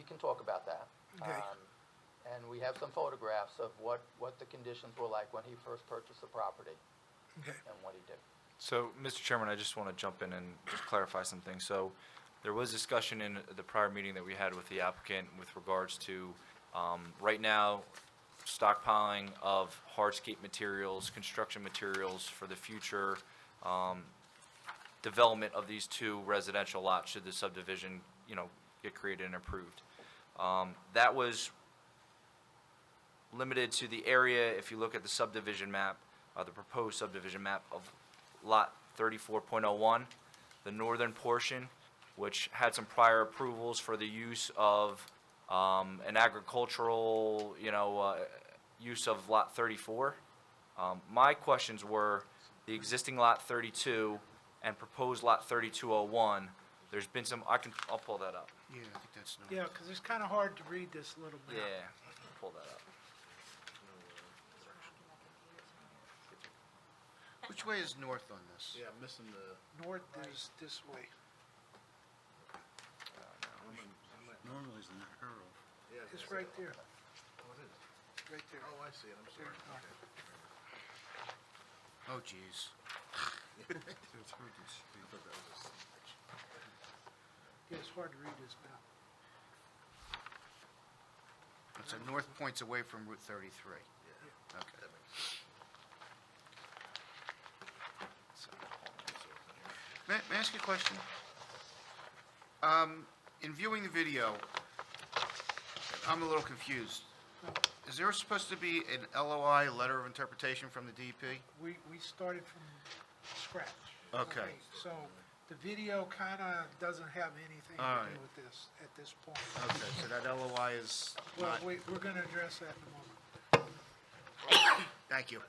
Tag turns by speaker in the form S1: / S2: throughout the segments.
S1: can talk about that.
S2: Okay.
S1: Um, And we have some photographs of what, what the conditions were like when he first purchased the property
S2: Okay.
S1: and what he did.
S3: So, Mr. Chairman, I just want to jump in and just clarify some things. So, there was discussion in the prior meeting that we had with the applicant with regards to, um, right now, stockpiling of hardscape materials, construction materials for the future, um, development of these two residential lots should the subdivision, you know, get created and approved. Um, that was limited to the area, if you look at the subdivision map, uh, the proposed subdivision map of lot thirty-four point oh one, the northern portion, which had some prior approvals for the use of, um, an agricultural, you know, uh, use of lot thirty-four. Um, my questions were, the existing lot thirty-two and proposed lot thirty-two oh one, there's been some, I can, I'll pull that up.
S4: Yeah, I think that's not.
S2: Yeah, because it's kind of hard to read this little bit.
S3: Yeah, pull that up.
S4: Which way is north on this?
S5: Yeah, I'm missing the,
S2: North is this way.
S4: Normally it's in the Herald.
S5: yeah.
S2: It's right there,
S5: Oh, it is.
S2: right there.
S5: Oh, I see it, I'm
S2: There
S5: sorry.
S2: you are.
S4: Oh, jeez.
S2: Yeah, it's hard to read this map.
S4: So north points away from Route 33.
S5: Yeah.
S4: Okay.
S5: That makes sense.
S4: May may I ask you a question? Um, In viewing the video, I'm a little confused. Is there supposed to be an LOI, letter of interpretation from the E DEP?
S2: We, we started from scratch.
S4: Okay.
S2: So the video kind of doesn't have anything
S4: All
S2: to do
S4: right.
S2: with this at this point.
S4: Okay, so that LOI is
S2: Well,
S4: not,
S2: we, we're going to address that in a moment.
S4: thank you.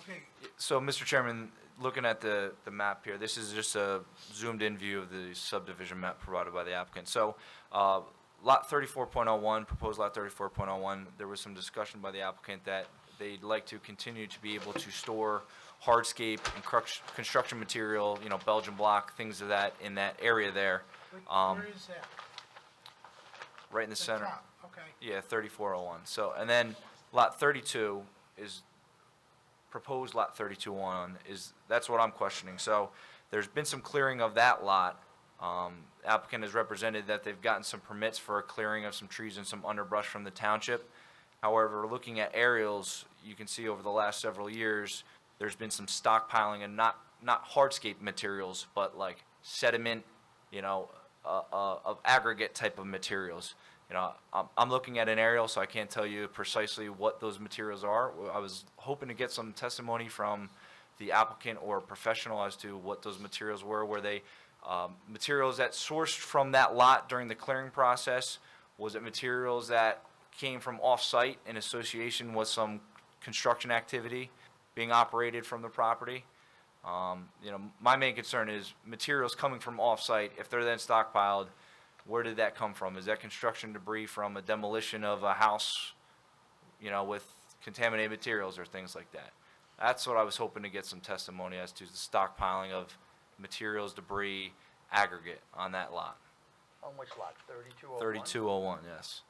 S2: Okay,
S3: So, Mr. Chairman, looking at the, the map here, this is just a zoomed-in view of the subdivision map provided by the applicant. So, uh, lot thirty-four point oh one, proposed lot thirty-four point oh one, there was some discussion by the applicant that they'd like to continue to be able to store hardscape and crux- construction material, you know, Belgian block, things of that, in that area there,
S2: wait,
S3: Um,
S2: where is that?
S3: right in the
S2: The
S3: center.
S2: top, Okay,
S3: Yeah, thirty-four oh one. So, and then lot thirty-two is, proposed lot thirty-two oh one is, that's what I'm questioning. So there's been some clearing of that lot. Um, applicant has represented that they've gotten some permits for a clearing of some trees and some underbrush from the township. However, looking at aerials, you can see over the last several years, there's been some stockpiling and not, not hardscape materials, but like sediment, you know, uh, uh, of aggregate type of materials. You know, I'm, I'm looking at an aerial, so I can't tell you precisely what those materials are. Well, I was hoping to get some testimony from the applicant or professional as to what those materials were. Were they um, materials that sourced from that lot during the clearing process? Was it materials that came from off-site in association with some construction activity being operated from the property? Um, you know, my main concern is materials coming from off-site, if they're then stockpiled, where did that come from? Is that construction debris from a demolition of a house, you know, with contaminated materials or things like that? That's what I was hoping to get some testimony as to the stockpiling of materials, debris, aggregate on that lot.
S1: On which lot, thirty-two oh one?
S3: Thirty-two oh one, yes.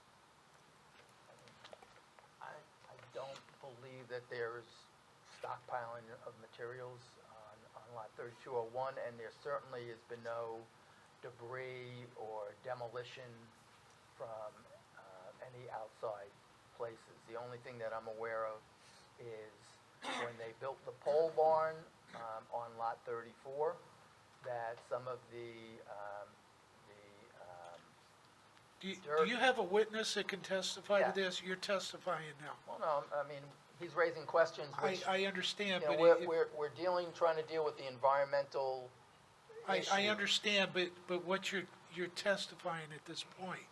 S1: I, I don't believe that there's stockpiling of materials on, on lot thirty-two oh one, and there certainly has been no debris or demolition from, uh, any outside places. The only thing that I'm aware of is when they built the pole barn, um, on lot thirty-four, that some of the, um, the, um,
S2: do you, do
S1: Dirt.
S2: you have a witness that can testify
S1: Yeah.
S2: to this? You're testifying now.
S1: well, no, I mean, he's raising questions
S2: I,
S1: which
S2: I understand,
S1: You know,
S2: but.
S1: we're,
S2: it-
S1: we're, we're dealing, trying to deal with the environmental
S2: I, I
S1: issue.
S2: understand, but, but what you're, you're testifying at this point,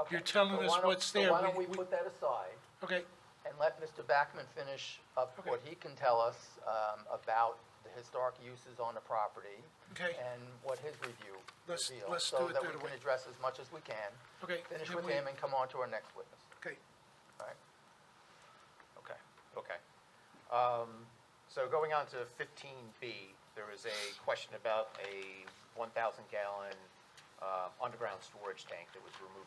S1: Okay,
S2: you're telling
S1: so
S2: us
S1: why don't-
S2: what's
S1: so
S2: there.
S1: why don't
S2: We-
S1: we
S2: we-
S1: put that aside
S2: okay?
S1: and let Mr. Backman finish up
S2: Okay.
S1: what he can tell us, um, about the historic uses on the property?
S2: Okay.
S1: And what his review
S2: Let's-
S1: reveals,
S2: let's do
S1: so
S2: it
S1: that
S2: that
S1: we can
S2: way.
S1: address as much as we can.
S2: Okay,
S1: Finish
S2: then
S1: with
S2: we-
S1: him and come on to our next witness,
S2: Okay,
S1: all right?
S6: Okay, okay. Um, So going on to fifteen B, there was a question about a one thousand gallon uh, underground storage tank that was removed